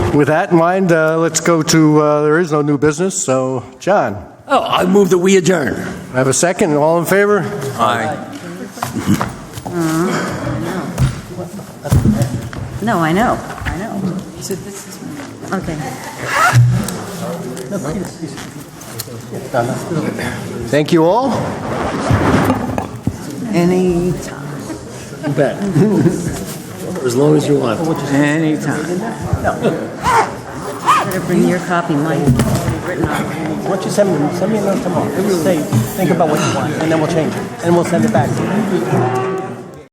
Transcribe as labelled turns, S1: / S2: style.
S1: With that in mind, uh, let's go to, uh, there is no new business, so, John,
S2: Oh, I move that we adjourn.
S1: I have a second, all in favor?
S2: Aye.
S3: No, I know, I know. So this is. Okay.
S1: Thank you all.
S3: Anytime.
S1: You bet. As long as you want.
S2: Anytime.
S3: Better bring your copy, Mike. Written on.
S4: Why don't you send me, send me a note tomorrow, say, think about what you want, and then we'll change it, and we'll send it back to you.